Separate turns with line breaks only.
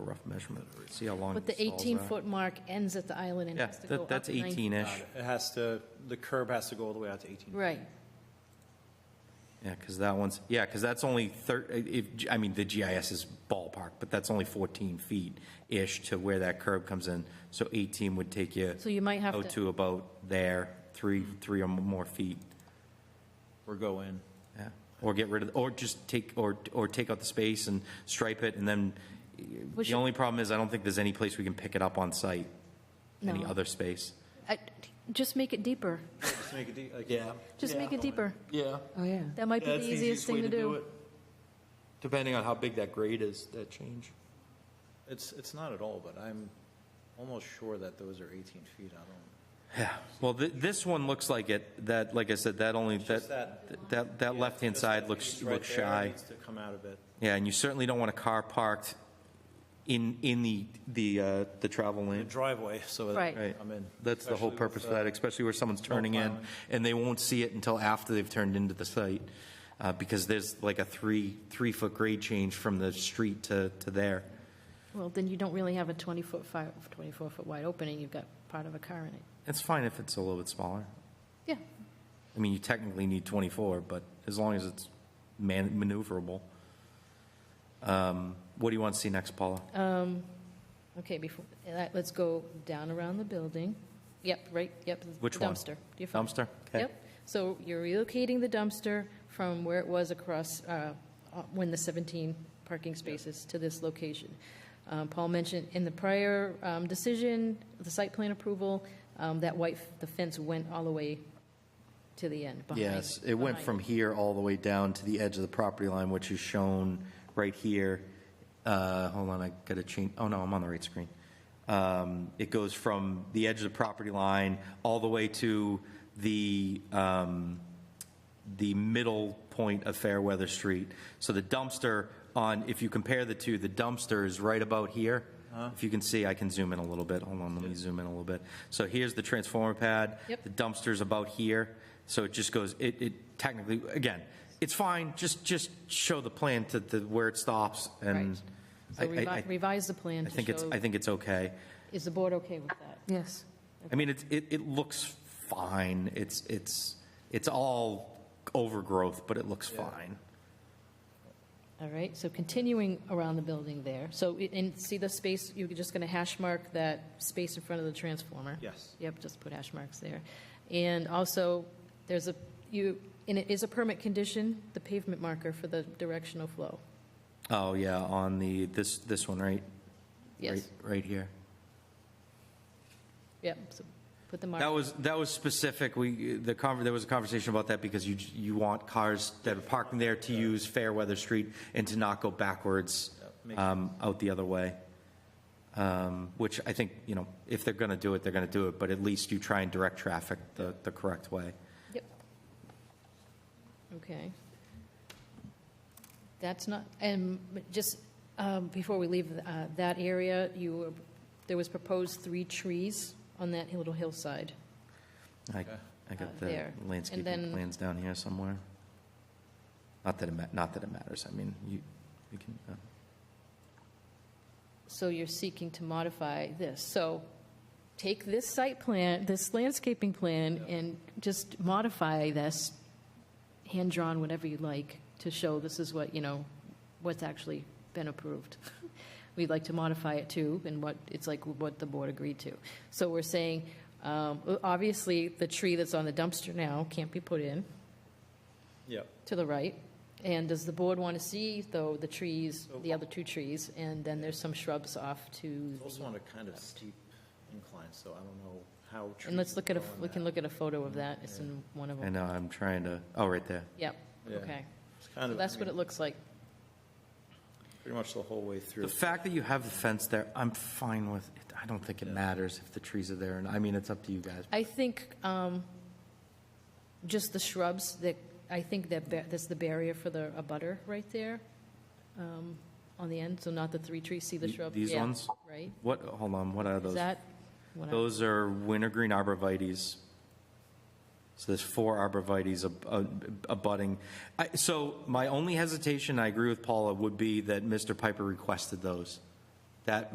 rough measurement, see how long
But the
these stalls are.
18-foot mark ends at the island and
Yeah,
has to go
that-
up
that's
19
18-ish,
It has to, the curb has to go all the way out to 18.
Right,
yeah, because that one's, yeah, because that's only thir, if, I mean, the GIS is ballpark, but that's only 14 feet-ish to where that curb comes in, so 18 would take you
so you might have
out
to,
Oh, to about there, three, three or more feet,
Or go in.
yeah. Or get rid of, or just take, or, or take out the space and stripe it, and then,
We
the
should-
only problem is, I don't think there's any place we can pick it up on site, any
No.
other space.
I- just make it deeper,
Just make it, de- like,
Yeah.
just make it deeper.
Yeah.
Oh, yeah.
That might be
That's
the easiest
way
thing to do.
it. Depending on how big that grade is, that change.
it's, it's not at all, but I'm almost sure that those are 18 feet. I don't,
Yeah, well, thi- this one looks like it, that, like I said, that only,
just
that, that, that left-hand
Just
side
that piece
looks,
right
looks
there
shy.
Needs to come out of it.
Yeah, and you certainly don't want a car parked in, in the, the, uh, the travel
The
lane.
driveway, so that
Right.
I'm in.
That's the whole
Especially with,
purpose of
uh,
that, especially where someone's turning in,
plowing.
and they won't see it until after they've turned into the site, uh, because there's like a three, three-foot grade change from the street to, to there.
Well, then you don't really have a 20-foot, 24-foot wide opening, you've got part of a car in it.
It's fine if it's a little bit smaller.
Yeah,
I mean, you technically need 24, but as long as it's man- maneuverable. Um, What do you want to see next, Paula?
okay, before, eh, that- let's go down around the building. Yep, right, yep. the
Which one?
Dumpster. Do you find-
Dumpster? Okay.
Yep, so you're relocating the dumpster from where it was across, uh, uh, when the 17 parking spaces to this location. Um, Paul mentioned in the prior um, decision, the site plan approval, um, that white, f- the fence went all the way to the end, behind.
Yes, it went
behind.
from here all the way down to the edge of the property line, which is shown right here. Uh, Hold on, I got to change, oh no, I'm on the right screen. Um, It goes from the edge of the property line all the way to the, um, the middle point of Fairweather Street. So the dumpster on, if you compare the two, the dumpster is right about here. If you can see, I can zoom in a little bit. Hold on, let me zoom in a little bit. So here's the transformer pad.
Yep.
The dumpster's about here. So it just goes, it, it technically, again, it's fine, just, just show the plan to the, where it stops and
Right.
I,
So
I,
revi-
I-
revise the plan
I think
to
it's,
show,
I think it's okay.
is the board okay with that?
Yes.
I mean, it's, it, it looks fine. It's, it's, it's all overgrowth, but it looks fine.
All right, so continuing around the building there, so, i- and see the space, you're just going to hash mark that space in front of the transformer?
uh, Yes.
Yep, just put hash marks there. And also, there's a, you, and it is a permit condition, the pavement marker for the directional flow.
Oh, yeah, on the, this, this one, right?
Yes,
Right- Right here.
yep, so put the
That
mark,
was, that was specific, we, the conver, there was a conversation about that because you, you want cars that are parking there to use Fairweather Street and to not go backwards,
makes
um, out the other way. Um, which I think, you know, if they're gonna do it, they're gonna do it, but at least you try and direct traffic the, the correct way.
yep. Okay. That's not, and just um, before we leave uh, that area, you, were- there was proposed three trees on that little hillside.
I, I
Uh,
got the
there. And
landscaping
then-
plans down here somewhere. Not that it ma, not that it matters, I mean, you, you can, uh,
So you're seeking to modify this. So take this site plan, this landscaping plan, and just modify this, hand-drawn, whatever you like, to show this is what, you know, what's actually been approved. We'd like to modify it too, and what, it's like what the board agreed to. So we're saying, um, obviously, the tree that's on the dumpster now can't be put in
Yep.
to the right. And does the board want to see, though, the trees, the other two trees, and then there's some shrubs off to,
It's also on a kind of steep incline, so I don't know how.
and let's
trees
look at a,
grow on
we can
that.
look at a photo of that, it's in one of
I
them.
know, I'm trying to, oh, right there.
Yep,
Yeah.
okay.
It's kind
So
of,
that's
I
what
mean,
it looks like.
pretty much the whole way through.
The fact that you have the fence there, I'm fine with it. I don't think it matters if the trees are there, and I mean, it's up to you guys.
I think um, just the shrubs, that, I think that, ba- that's the barrier for the, a butter right there um, on the end, so not the three trees, see the
The-
shrub?
these
Yeah,
ones?
Right?
What, hold on, what are
Is
those?
that? what I-
Those are wintergreen arborvitae's. So there's four arborvitae's ab- ab- abutting. I- So my only hesitation, I agree with Paula, would be that Mr. Piper requested those. that